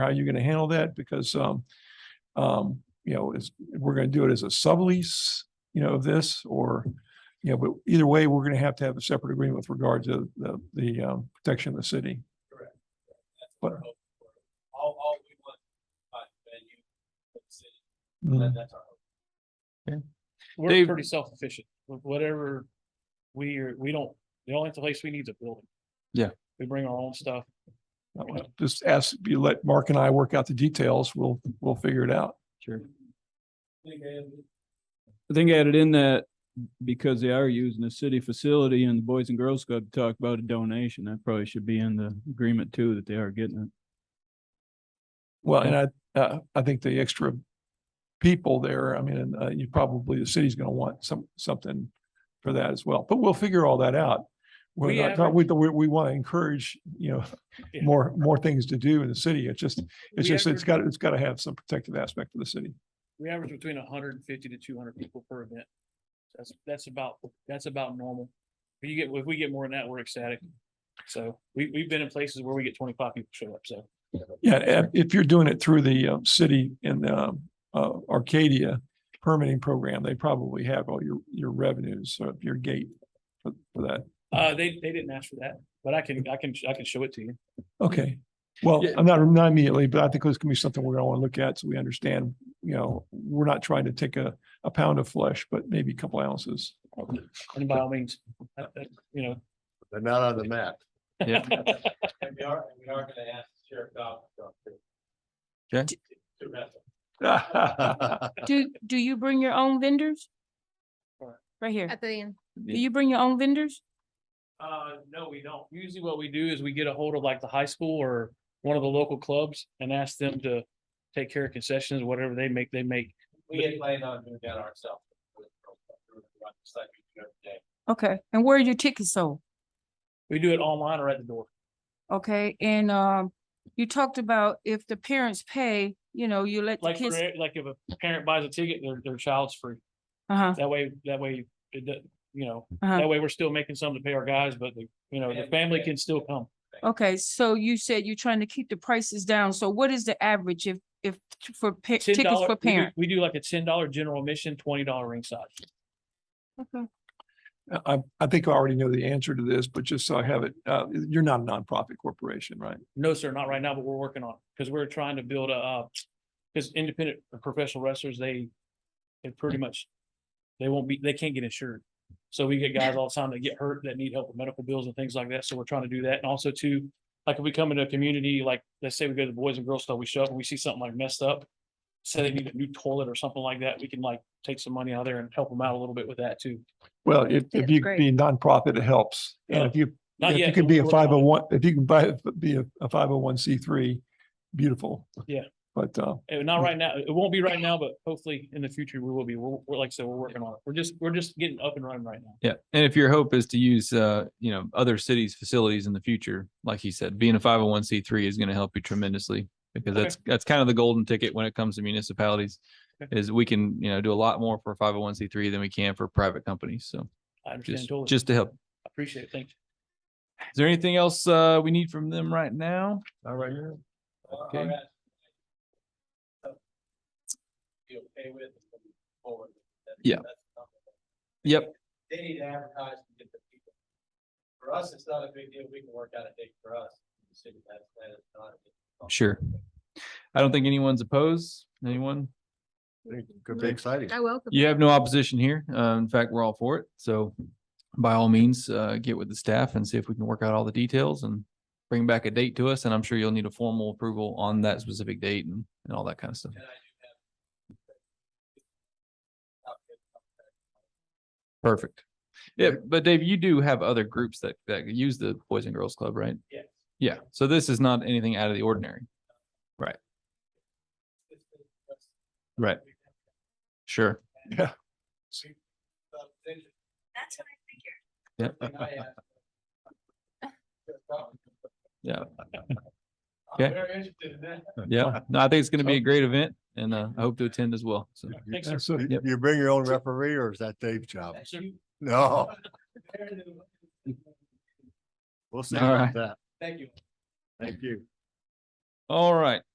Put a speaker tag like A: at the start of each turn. A: how you're gonna handle that because, um, um, you know, it's, we're gonna do it as a sublease, you know, of this or, you know, but either way, we're gonna have to have a separate agreement with regard to the, the, um, protection of the city.
B: That's what we're
A: But-
B: hoping for. All, all we want, but venue, for the city,
A: Mm.
B: that- that's our hope.
C: We're
D: Dave-
C: pretty self-efficient, Wh- whatever, we are, we don't, the only place we need is a building.
D: Yeah.
C: We bring our own stuff,
A: That was- Just ask, you let Mark and I work out the details. We'll, we'll figure it out.
D: Sure.
B: Big and-
D: I think I added in that because they are using a city facility and the Boys and Girls Club talked about a donation, that probably should be in the agreement too, that they are getting it.
A: Well, and I, uh, I think the extra people there, I mean, uh, you probably, the city's gonna want some, something for that as well, but we'll figure all that out. We're
C: We
A: not- not, we, we, we want to encourage, you know,
C: Yeah.
A: more, more things to do in the city. It's just, it's
C: We
A: just, it's
C: average-
A: got, it's got to have some protective aspect of the city.
C: we average between hundred and fifty to two hundred people per event. That's, that's about, that's about normal. If you get, if we get more than that, we're ecstatic. So we, we've been in places where we get twenty-five people show up, so.
A: Yeah, and if you're doing it through the um, city and um, uh, Arcadia permitting program, they probably have all your, your revenues, uh, your gate for for that.
C: Uh, they, they didn't ask for that, but I can, I can, I can show it to you.
A: Okay, well,
D: Yeah.
A: I'm not, not immediately, but I think this can be something we're gonna want to look at, so we understand, you know, we're not trying to take a, a pound of flesh, but maybe a couple ounces.
C: And by all means, uh, uh, you know.
E: They're not on the map.
B: And we are, and we are gonna ask the Sheriff Dobbs. to come too.
D: Okay.
B: To- To rest.
F: Do, do you bring your own vendors?
C: Or-
F: Right here.
G: At the end.
F: Do you bring your own vendors?
C: Uh, no, we don't. Usually what we do is we get a hold of like the high school or one of the local clubs and ask them to take care of concessions, whatever they make, they make.
B: We had planned on doing that ourselves. We're gonna run just like we do every day.
F: Okay, and where are your tickets sold?
C: We do it online or at the door.
F: Okay, and, um, you talked about if the parents pay, you know, you let the
C: Like, for
F: kids,
C: e- like if a parent buys a ticket, their, their child's free.
F: uh-huh,
C: That way, that way, it, do- you know,
F: uh-huh.
C: that way we're still making some to pay our guys, but the, you know, the family can still come.
F: Okay, so you said you're trying to keep the prices down. So what is the average if, if, t- for pa-
C: $10
F: tickets
C: we
F: for
C: do-
F: parent?
C: We do like a ten dollar general admission, twenty dollar ringside.
F: Okay.
A: I, I think I already know the answer to this, but just so I have it, uh, you're not a nonprofit corporation, right?
C: No, sir, not right now, but we're working on it, because we're trying to build a, uh, because independent professional wrestlers, they, they pretty much, they won't be, they can't get insured. So we get guys all the time that get hurt, that need help with medical bills and things like that, so we're trying to do that, and also too, like if we come into a community, like, let's say we go to the Boys and Girls Club, we show up and we see something like messed up, say they need a new toilet or something like that, we can like take some money out of there and help them out a little bit with that too.
A: Well, if, if
G: That's
A: you
G: great.
A: be nonprofit, it helps. And
C: Yeah.
A: if you,
C: Not
A: if you
C: yet,
A: could
C: but
A: be a
C: we're working on it.
A: five oh one, if you can buy, be a, a five oh one C three, beautiful.
C: Yeah.
A: But, uh,
C: Uh, Not right now. It won't be right now, but hopefully in the future we will be. We're, we're like I said, we're working on it. We're just, we're just getting up and running right now.
H: Yeah, and if your hope is to use, uh, you know, other cities' facilities in the future, like he said, being a five hundred one C three is going to help you tremendously because
C: Okay.
H: that's that's kind of the golden ticket when it comes to municipalities.
C: Okay.
H: Is we can you know do a lot more for five hundred one C three than we can for private companies. So
C: I understand
H: just
C: totally.
H: just to help.
C: I Appreciate it. Thank you.
H: Is there anything else uh, we need from them right now?
E: All right here.
B: All
H: Okay.
B: right. So, You okay with it moving forward? That-
H: Yeah.
B: that's not-
H: Yep.
B: They need to advertise and get the people. For us, it's not a big deal. We can work out a date for us. The city has that, it's not a big deal.
H: Sure. I don't think anyone's opposed. Anyone?
E: Could be exciting.
G: I welcome.
H: You have no opposition here. Uh, in fact, we're all for it. So by all means, uh, get with the staff and see if we can work out all the details and bring back a date to us. And I'm sure you'll need a formal approval on that specific date and, and all that kind of stuff.
B: And I do have.
H: Perfect. Yeah, but Dave, you do have other groups that, that use the Boys and Girls Club, right?
B: Yes.
H: Yeah. So this is not anything out of the ordinary.
B: It's been- that's-
H: Right.
B: we've had
H: Sure.
B: some things
G: That's what I figured.
H: Yep.
B: that I asked.
H: Yeah. Okay.
B: I'm very interested in that.
H: Yeah. Oh. No, I think it's going to be a great event and, uh, I hope to attend as well. So.
C: Thanks, sir.
A: that's a-
E: You
H: Yep.
E: you bring your own referee or is that Dave's job?
B: That's you.
E: No, we'll see
H: All
E: about
H: right.
E: that.
B: Thank you.
E: Thank you.
H: All right.